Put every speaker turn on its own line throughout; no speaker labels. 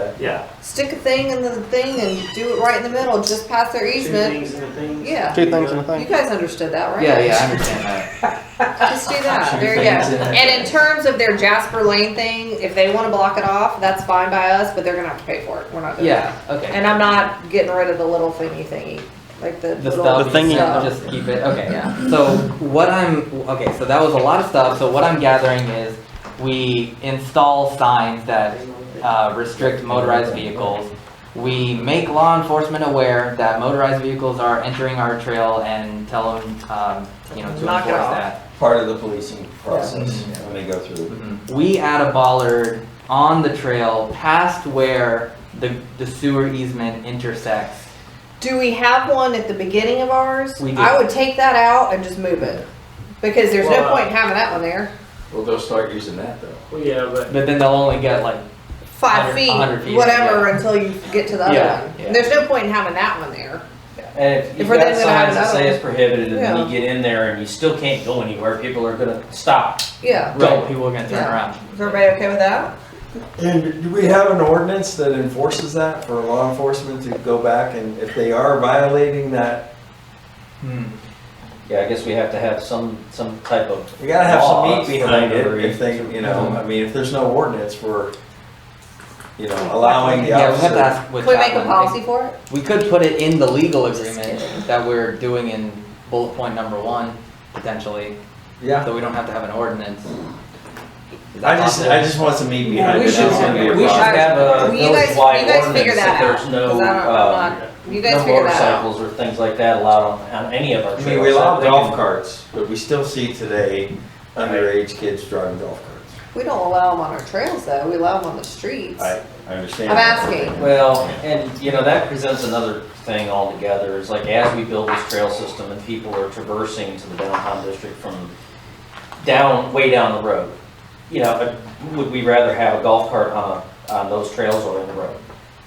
but
Yeah,
stick a thing in the thing and do it right in the middle, just past their
two
easement.
things in a thing.
Yeah.
Two things in a
You
thing.
guys understood that, right?
Yeah, yeah, I understand that.
Just do that.
Two
There you
things
go.
in a-
And in terms of their Jasper Lane thing, if they want to block it off, that's fine by us, but they're gonna have to pay for it. We're not doing it.
Yeah, okay.
And I'm not getting rid of the little thingy thingy, like the
the
little
stuff.
The thing you-
stuff.
Just keep it. Okay.
Yeah.
So what I'm okay. So that was a lot of stuff. So what I'm gathering is we install signs that uh, restrict motorized vehicles. We make law enforcement aware that motorized vehicles are entering our trail and tell them, um, you know, to
Knock it
enforce
off.
that. Mm-hmm.
part of the policing process when they go through.
We add a bollard on the trail past where the the sewer easement intersects.
Do we have one at the beginning of ours?
We do.
I would take that out and just move it. Because there's no
Well, uh,
point in having that one there.
Well, they'll start using that though.
Well, yeah, but
But then they'll only get like
Five
100 100
feet,
feet,
whatever, until you get to the
Yeah,
other one.
yeah.
There's no point in having that one there.
And if
If
you've
we're
got
then gonna have
signs that say
another-
it's prohibited, and then
Yeah.
you get in there and you still can't go anywhere, people are gonna stop.
Yeah.
right. People are gonna turn
Yeah.
around.
Is everybody okay with that?
And do we have an ordinance that enforces that for law enforcement to go back and if they are violating that,
Hmm.
Yeah, I guess we have to have some, some type of,
we gotta have some
Laws
meat
for
behind it
every-
if they, you know, I mean, if there's no ordinance for, you know, allowing the
Yeah, we have to
officer.
ask what
Can we make a
chaplain-
policy for it?
We could put it in the legal agreement that we're doing in bullet point number one, potentially,
Yeah,
so we don't have to have an ordinance. Is
I
that
just,
possible?
I just want some meat behind it.
we should,
That's gonna be a
we should
problem.
have a
Well, You guys,
village-wide
you guys figure
ordinance
that
that
out.
there's no,
'cause I don't- I'm
uh,
not- You guys
no
figure that out.
motorcycles or things like that allowed on, on any of our
I
trails.
mean, we allow
They can-
golf carts, but we still see today underage kids driving golf carts.
We don't allow them on our trails though, we allow them on the streets.
I, I understand.
I'm asking.
Well, and you know, that presents another thing altogether, is like as we build this trail system and people are traversing to the downtown district from down, way down the road, you know, but would we rather have a golf cart on, a- on those trails or in the road?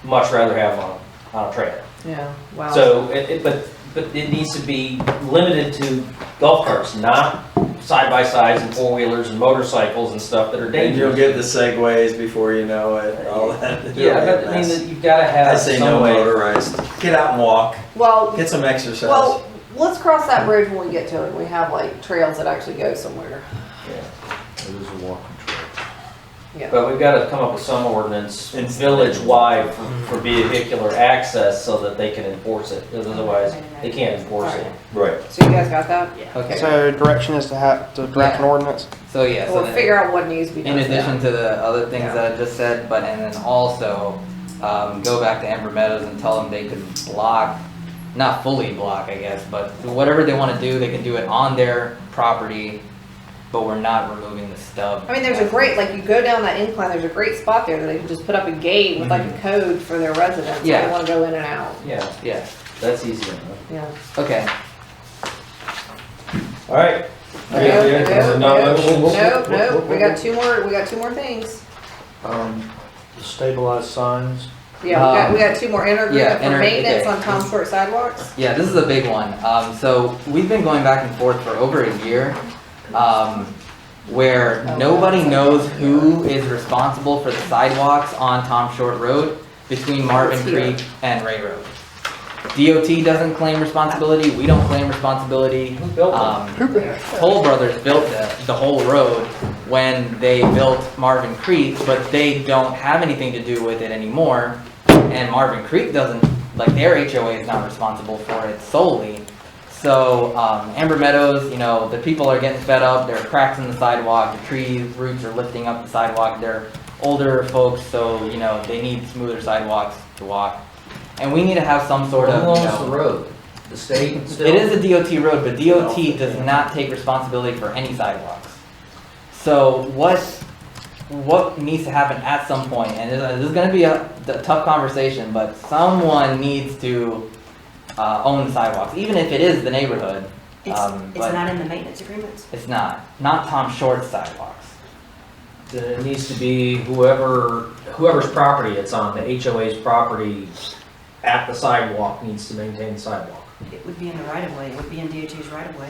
Much rather have on, on a trail.
Yeah, wow.
So, it, it, but, but it needs to be limited to golf carts, not side-by-sides and four-wheelers and motorcycles and stuff that are
And you'll
dangerous.
get the segways before you know it, all that.
Yeah, but I mean, that you've gotta
I
have
say no
some way.
motorized. Get out and walk.
Well,
Get some exercise.
well, let's cross that bridge when we get to it, we have like trails that actually go somewhere.
But we've gotta come up with some ordinance,
It's-
village-wide
Mm-hmm.
for- for vehicular access so that they can enforce it, 'cause otherwise, they can't enforce it.
right.
So you guys got that?
Okay,
So direction is to have, to draft an ordinance?
so yeah, so
We'll
then-
figure out what needs to be done.
in
with that.
addition to the other things
Yeah.
that I just said, but, and then also, um, go back to Amber Meadows and tell them they could block, not fully block, I guess, but whatever they wanna do, they can do it on their property, but we're not removing the stub.
I mean, there's a great, like, you go down that incline, there's a great spot there that they can just put up a gate with
Mm-hmm.
like a code for their residents, if they
Yeah.
wanna go in and out,
Yeah,
Yeah,
that's easy enough.
yeah.
okay.
All right.
Nope,
Yeah, yeah, there's a
nope,
non-motion.
Nope, nope, we got two more, we got two more things.
Um,
Stabilized signs.
Yeah, we got,
Um,
we got two more
yeah,
intergroup for
inter-
maintenance
okay.
on Tom Stewart sidewalks.
yeah, this is a big one. Um, so we've been going back and forth for over a year, um, where
Oh,
nobody knows who is responsible for the sidewalks on Tom Short Road between Marvin
It's here.
Creek and Ray Road. DOT doesn't claim responsibility, we don't claim responsibility.
Who built them?
Um, Toll Brothers built the, the whole road when they built Marvin Creek, but they don't have anything to do with it anymore. And Marvin Creek doesn't, like, their HOA is not responsible for it solely. So, um, Amber Meadows, you know, the people are getting fed up, there are cracks in the sidewalk, the trees, roots are lifting up the sidewalk, they're older folks, so, you know, they need smoother sidewalks to walk. And we need to have some sort of,
Who
you
owns
know-
the road? The state still?
it is a DOT road, but DOT does not take responsibility for any sidewalks. So what, what needs to happen at some point, and this this is gonna be a a tough conversation, but someone needs to, uh, own the sidewalks, even if it is the neighborhood. Um,
It's, it's
but-
not in the maintenance agreements.
It's not, not Tom Short's sidewalks.
Then it needs to be whoever, whoever's property it's on, the HOA's property at the sidewalk needs to maintain the sidewalk.
It would be in the right of way, it would be in DOT's right of way.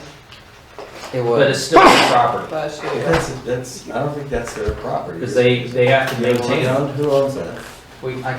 It
But
was,
it's still their property,
Bless you.
That's, that's, I don't think that's their property.
because they, they have to
You don't
maintain it.
know Who owns that?
we, I